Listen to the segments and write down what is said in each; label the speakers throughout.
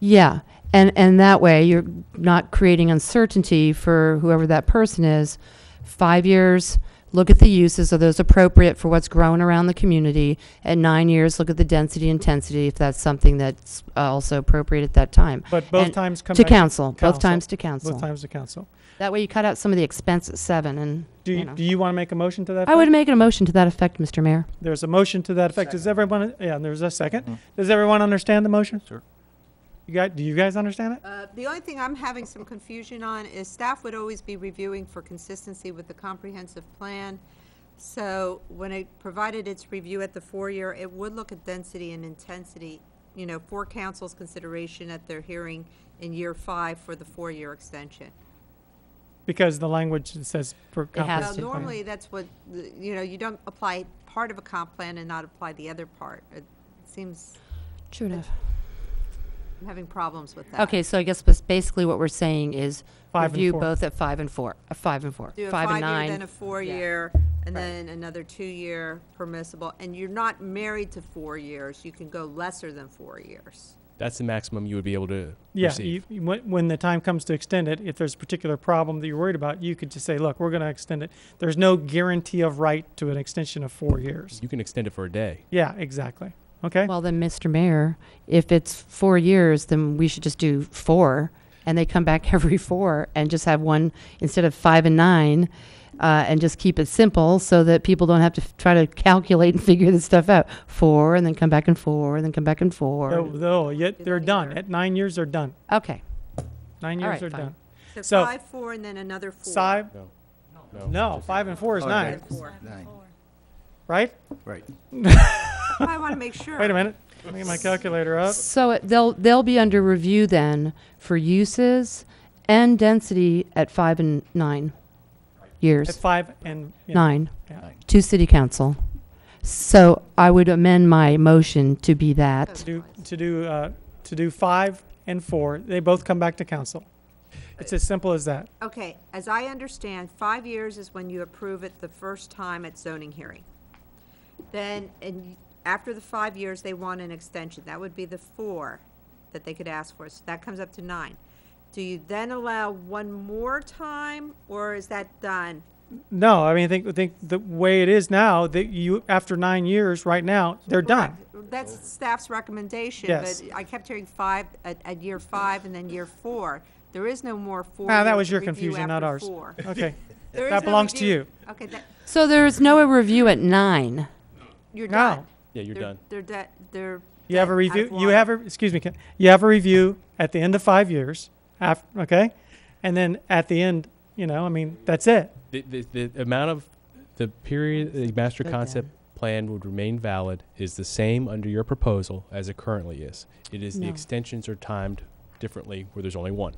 Speaker 1: Yeah, and, and that way, you're not creating uncertainty for whoever that person is. Five years, look at the uses, are those appropriate for what's growing around the community? At nine years, look at the density intensity, if that's something that's uh, also appropriate at that time.
Speaker 2: But both
Speaker 1: And
Speaker 2: times come
Speaker 1: To
Speaker 2: back.
Speaker 1: council, both
Speaker 2: Council.
Speaker 1: times to
Speaker 2: Both
Speaker 1: council.
Speaker 2: times to council.
Speaker 1: That way, you cut out some of the expense at seven, and,
Speaker 2: Do
Speaker 1: you
Speaker 2: you,
Speaker 1: know.
Speaker 2: do you want to make a motion to that?
Speaker 1: I would
Speaker 2: effect?
Speaker 1: make a motion to that effect, Mr. Mayor.
Speaker 2: There's a motion to that effect. Does everyone, yeah, and there's a second. Does everyone understand the motion?
Speaker 3: Sure.
Speaker 2: You guys, do you guys understand it?
Speaker 4: Uh, The only thing I'm having some confusion on is staff would always be reviewing for consistency with the comprehensive plan. So when it provided its review at the four-year, it would look at density and intensity, you know, for council's consideration at their hearing in year five for the four-year extension.
Speaker 2: Because the language that says for
Speaker 1: It has to.
Speaker 4: Now,
Speaker 2: comprehensive plan.
Speaker 4: normally, that's what, the- you know, you don't apply part of a comp plan and not apply the other part. It seems,
Speaker 1: True enough.
Speaker 4: I'm having problems with that.
Speaker 1: Okay, so I guess bas- basically what we're saying is
Speaker 2: Five and
Speaker 1: review
Speaker 2: four.
Speaker 1: both at five and four, uh, five and four,
Speaker 4: Do a
Speaker 1: five and
Speaker 4: five-year, then
Speaker 1: nine.
Speaker 4: a four-year, and then another two-year permissible. And you're not married to four years. You can go lesser than four years.
Speaker 5: That's the maximum you would be able to
Speaker 2: Yeah,
Speaker 5: receive.
Speaker 2: you, you- when, when the time comes to extend it, if there's a particular problem that you're worried about, you could just say, look, we're going to extend it. There's no guarantee of right to an extension of four years.
Speaker 5: You can extend it for a day.
Speaker 2: Yeah, exactly. Okay?
Speaker 1: Well, then, Mr. Mayor, if it's four years, then we should just do four, and they come back every four, and just have one, instead of five and nine, uh, and just keep it simple, so that people don't have to f- try to calculate and figure this stuff out. Four, and then come back and four, and then come back and
Speaker 2: Though,
Speaker 1: four.
Speaker 2: though, yet they're done.
Speaker 4: Later.
Speaker 2: At nine years, they're done.
Speaker 1: Okay,
Speaker 2: Nine
Speaker 1: All
Speaker 2: years
Speaker 1: right,
Speaker 2: are
Speaker 1: fine.
Speaker 2: done. So-
Speaker 4: So five, four, and then another four.
Speaker 2: Five,
Speaker 5: No.
Speaker 2: no, five and four is
Speaker 3: Oh,
Speaker 2: nine,
Speaker 3: okay.
Speaker 4: Another four.
Speaker 3: Nine,
Speaker 2: right?
Speaker 3: right.
Speaker 4: I want to make sure.
Speaker 2: Wait a minute. Let me get my calculator up.
Speaker 1: so it- they'll, they'll be under review then for uses and density at five and nine
Speaker 2: At
Speaker 1: years,
Speaker 2: five and yeah.
Speaker 1: nine.
Speaker 2: Yeah.
Speaker 3: Nine.
Speaker 1: to city council. So I would amend my motion to be
Speaker 2: To
Speaker 1: that.
Speaker 2: do, to do, uh, to do five and four, they both come back to council. It's as simple as that.
Speaker 4: Okay, as I understand, five years is when you approve it the first time at zoning hearing. Then, and after the five years, they want an extension. That would be the four that they could ask for. So that comes up to nine. Do you then allow one more time, or is that done?
Speaker 2: No, I mean, I think, I think the way it is now, that you, after nine years, right now, they're done.
Speaker 4: Correct. That's staff's recommendation,
Speaker 2: Yes.
Speaker 4: but I kept hearing five at, at year five and then year four. There is no more four.
Speaker 2: Ah, that
Speaker 4: years
Speaker 2: was
Speaker 4: to
Speaker 2: your
Speaker 4: review
Speaker 2: confusion, not
Speaker 4: after
Speaker 2: ours.
Speaker 4: four.
Speaker 2: Okay.
Speaker 4: There is
Speaker 2: That
Speaker 4: no
Speaker 2: belongs to
Speaker 4: review-
Speaker 2: you.
Speaker 4: Okay, that,
Speaker 1: So there's no review at nine.
Speaker 4: you're
Speaker 2: No.
Speaker 4: done.
Speaker 5: Yeah, you're
Speaker 4: They're-
Speaker 5: done.
Speaker 4: They're, de- they're.
Speaker 2: You have
Speaker 4: dead,
Speaker 2: a
Speaker 4: out
Speaker 2: review,
Speaker 4: of
Speaker 2: you
Speaker 4: water.
Speaker 2: have a, excuse me, Ken. you have a review at the end of five years, af, okay? And then at the end, you know, I mean, that's it.
Speaker 5: The, the, the amount of the period the master
Speaker 1: Good
Speaker 5: concept plan would remain valid is the same under your proposal as it currently is. It is the
Speaker 1: No.
Speaker 5: extensions are timed differently where there's only one,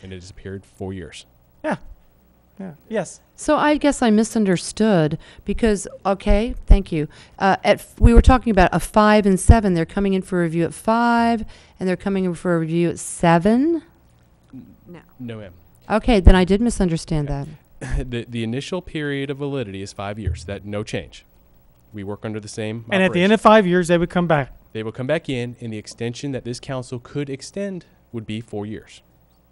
Speaker 5: and it has appeared four years.
Speaker 2: Yeah. Yeah. Yes.
Speaker 1: So I guess I misunderstood because, okay, thank you. Uh, at, f- we were talking about a five and seven. They're coming in for review at five and they're coming in for review at seven.
Speaker 4: No.
Speaker 5: No, ma'am.
Speaker 1: Okay, then I did misunderstand that.
Speaker 5: the, the initial period of validity is five years. That no change. We work under the same.
Speaker 2: And at the end
Speaker 5: operation.
Speaker 2: of five years, they would come back.
Speaker 5: they will come back in, and the extension that this council could extend would be four years.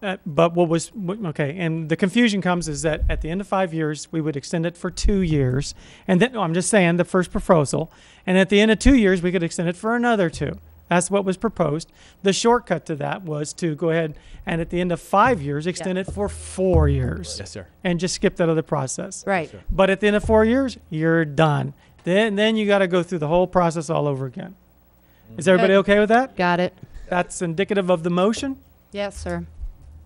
Speaker 2: Uh, but what was what, okay, and the confusion comes is that at the end of five years, we would extend it for two years, and then no, I'm just saying the first proposal, and at the end of two years, we could extend it for another two. That's what was proposed. The shortcut to that was to go ahead and at the end of five years, extend it for four years,
Speaker 5: Yes, sir.
Speaker 2: and just skip that other process.
Speaker 1: Right.
Speaker 2: But at the end of four years, you're done. Then then you got to go through the whole process all over again. Is everybody okay with that?
Speaker 1: Got it.
Speaker 2: That's indicative of the motion.
Speaker 1: Yes, sir.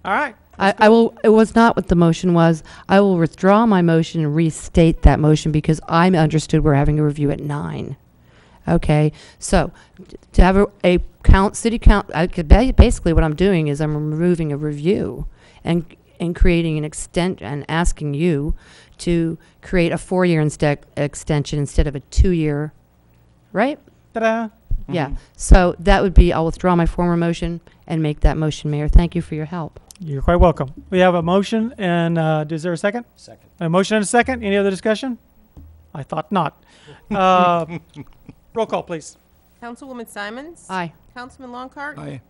Speaker 2: All right.
Speaker 1: I, I will, it was not what the motion was. I will withdraw my motion and restate that motion because I understood we're having a review at nine. Okay, so t- to have a, a count, city count, I could, ba- basically what I'm doing is I'm removing a review and, and creating an extent, and asking you to create a four-year instead, extension instead of a two-year, right?
Speaker 2: Ta-da.
Speaker 1: Yeah, so that would be, I'll withdraw my former motion and make that motion, Mayor. Thank you for your help.
Speaker 2: You're quite welcome. We have a motion and, uh, is there a second?
Speaker 3: Second.
Speaker 2: A motion and a second? Any other discussion? I thought not. Uh, roll call, please.
Speaker 6: Councilwoman Simons?
Speaker 1: Aye.
Speaker 6: Councilman Longcart?
Speaker 3: Aye.